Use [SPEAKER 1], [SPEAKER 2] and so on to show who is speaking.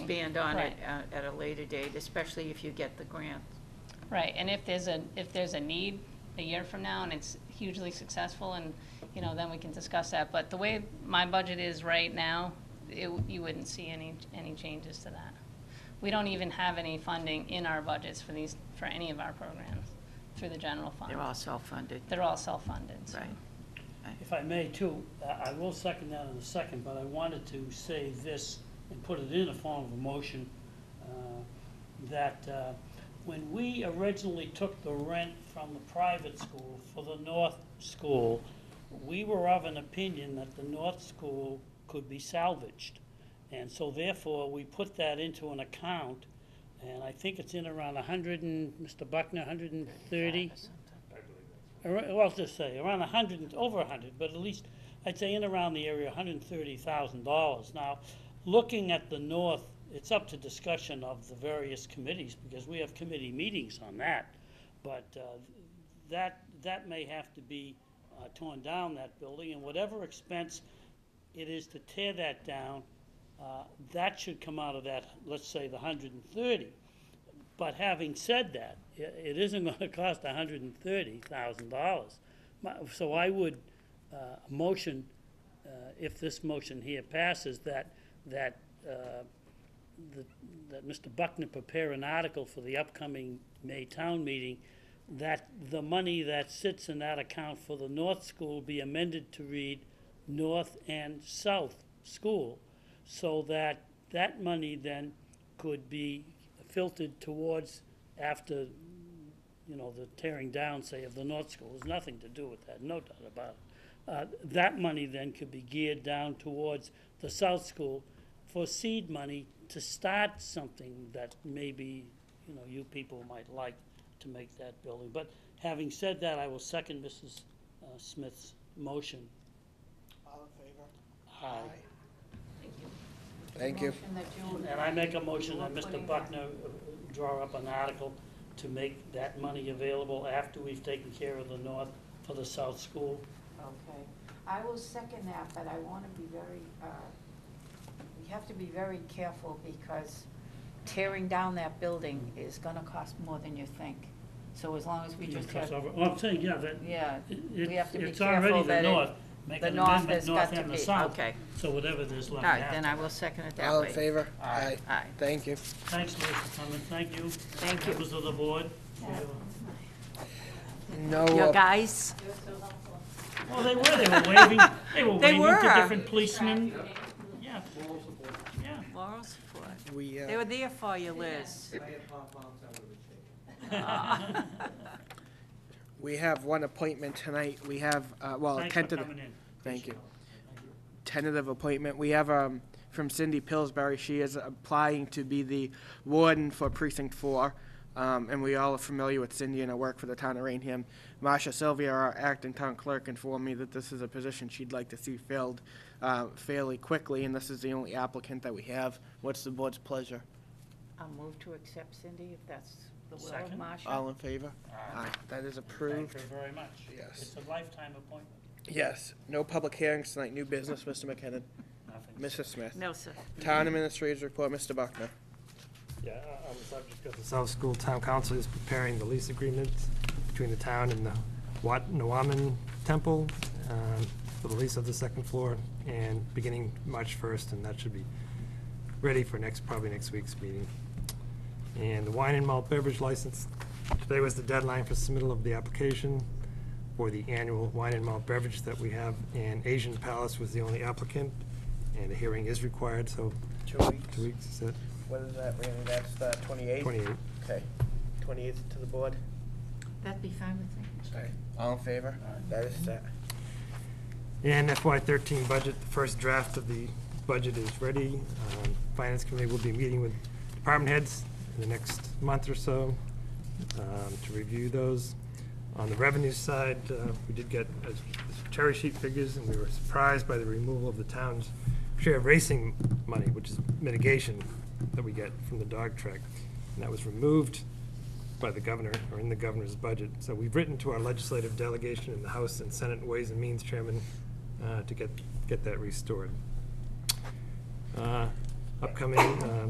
[SPEAKER 1] expand on it
[SPEAKER 2] Right.
[SPEAKER 1] uh, at a later date, especially if you get the grant.
[SPEAKER 2] Right, and if there's a, if there's a need a year from now and it's hugely successful and, you know, then we can discuss that. But the way my budget is right now, it, you wouldn't see any, any changes to that. We don't even have any funding in our budgets for these, for any of our programs through the general fund.
[SPEAKER 1] They're all self-funded.
[SPEAKER 2] They're all self-funded, so.
[SPEAKER 1] Right.
[SPEAKER 3] If I may too, I I will second that in a second, but I wanted to say this and put it in the form of a motion, uh, that uh, when we originally took the rent from the private school for the North School, we were of an opinion that the North School could be salvaged. And so therefore, we put that into an account, and I think it's in around a hundred and, Mr. Buckner, hundred and thirty? Ar- Well, just say, around a hundred, and- over a hundred, but at least, I'd say in around the area, hundred and thirty thousand dollars. Now, looking at the north, it's up to discussion of the various committees, because we have committee meetings on that. But, uh, that, that may have to be, uh, torn down, that building, and whatever expense it is to tear that down, uh, that should come out of that, let's say, the hundred and thirty. But having said that, i- it isn't gonna cost hundred and thirty thousand dollars. So I would, uh, motion, uh, if this motion here passes, that, that, uh, that- that Mr. Buckner prepare an article for the upcoming May town meeting, that the money that sits in that account for the North School be amended to read North and South School, so that that money then could be filtered towards after, you know, the tearing down, say, of the North School. There's nothing to do with that, no doubt about it. Uh, That money then could be geared down towards the South School for seed money to start something that maybe, you know, you people might like to make that building. But having said that, I will second Mrs. uh, Smith's motion.
[SPEAKER 4] All in favor?
[SPEAKER 3] Aye.
[SPEAKER 5] Thank you.
[SPEAKER 1] And that you-
[SPEAKER 3] And I make a motion that
[SPEAKER 1] We're
[SPEAKER 3] Mr.
[SPEAKER 1] putting that-
[SPEAKER 3] Buckner uh, draw up an article to make that money available after we've taken care of the North for the South School.
[SPEAKER 6] Okay, I will second that, but I want to be very, uh, we have to be very careful because tearing down that building is going to cost more than you think. So as long as we just
[SPEAKER 3] Because
[SPEAKER 6] have,
[SPEAKER 3] of- Well, I'm saying, yeah, that,
[SPEAKER 6] yeah,
[SPEAKER 3] it-
[SPEAKER 6] we have to be
[SPEAKER 3] it's already
[SPEAKER 6] careful
[SPEAKER 3] the
[SPEAKER 6] that it,
[SPEAKER 3] North. Make
[SPEAKER 6] the
[SPEAKER 3] an
[SPEAKER 6] north
[SPEAKER 3] amendment,
[SPEAKER 6] has
[SPEAKER 3] north
[SPEAKER 6] got to
[SPEAKER 3] and the
[SPEAKER 6] be-
[SPEAKER 3] south.
[SPEAKER 1] Okay.
[SPEAKER 3] So whatever there's
[SPEAKER 1] All
[SPEAKER 3] left
[SPEAKER 1] right, then
[SPEAKER 3] after.
[SPEAKER 1] I will second it that
[SPEAKER 5] All in
[SPEAKER 1] way.
[SPEAKER 5] favor?
[SPEAKER 3] Aye.
[SPEAKER 1] Aye.
[SPEAKER 5] Thank you.
[SPEAKER 3] Thanks, Liz, for coming, thank you.
[SPEAKER 1] Thank you.
[SPEAKER 3] Members of the board.
[SPEAKER 5] No,
[SPEAKER 1] Your
[SPEAKER 5] uh,
[SPEAKER 1] guys,
[SPEAKER 3] Well, they were, they were waving, they were
[SPEAKER 1] They
[SPEAKER 3] waving to
[SPEAKER 1] were.
[SPEAKER 3] different policemen. Yeah. Yeah.
[SPEAKER 1] moral support.
[SPEAKER 5] we,
[SPEAKER 1] They
[SPEAKER 5] uh,
[SPEAKER 1] were there for you, Liz.
[SPEAKER 7] If I had pom-poms, I would've been shaking.
[SPEAKER 1] Uh,
[SPEAKER 5] we have one appointment tonight. We have, uh, well, a
[SPEAKER 3] Thanks for
[SPEAKER 5] tentative.
[SPEAKER 3] coming in.
[SPEAKER 5] Thank you. Tentative appointment. We have, um, from Cindy Pillsbury. She is applying to be the warden for precinct four. Um, and we all are familiar with Cindy and her work for the town of Rainham. Marcia Sylvia, our acting town clerk, informed me that this is a position she'd like to see filled, uh, fairly quickly, and this is the only applicant that we have. What's the board's pleasure?
[SPEAKER 1] I'll move to accept Cindy, if that's the will of
[SPEAKER 3] Second.
[SPEAKER 1] Marcia.
[SPEAKER 5] All in favor? Aye. That is
[SPEAKER 3] Thank
[SPEAKER 5] approved.
[SPEAKER 3] her very much.
[SPEAKER 5] Yes.
[SPEAKER 3] It's a lifetime appointment,
[SPEAKER 5] Yes, no public hearings tonight, new business, Mr. McKinnon.
[SPEAKER 3] nothing.
[SPEAKER 5] Mrs. Smith.
[SPEAKER 1] No, sir.
[SPEAKER 5] Town Administrator's Report, Mr. Buckner.
[SPEAKER 8] Yeah, I- I was up just because the South School Town Council is preparing the lease agreement between the town and the Wat Nuwaman Temple um, for the lease of the second floor, and beginning March 1st, and that should be ready for next, probably next week's meeting. And the wine and malt beverage license, today was the deadline for submittal of the application for the annual wine and malt beverage that we have, and Asian Palace was the only applicant, and a hearing is required, so
[SPEAKER 5] Two
[SPEAKER 8] two weeks, is that
[SPEAKER 5] What is that, Randy? That's the 28th?
[SPEAKER 8] 28?
[SPEAKER 5] Okay. 28th to the board?
[SPEAKER 1] That'd be fine with me.
[SPEAKER 5] Aye. All in favor? That is set.
[SPEAKER 8] And FY thirteen budget, the first draft of the budget is ready. Um, Finance Committee will be meeting with department heads in the next month or so um, to review those. On the revenue side, uh, we did get uh, cherry sheet figures, and we were surprised by the removal of the town's share of racing money, which is mitigation that we get from the dog track. And that was removed by the governor, or in the governor's budget. So we've written to our legislative delegation in the House and Senate Ways and Means Chairman uh, to get, get that restored. Uh, Upcoming uh,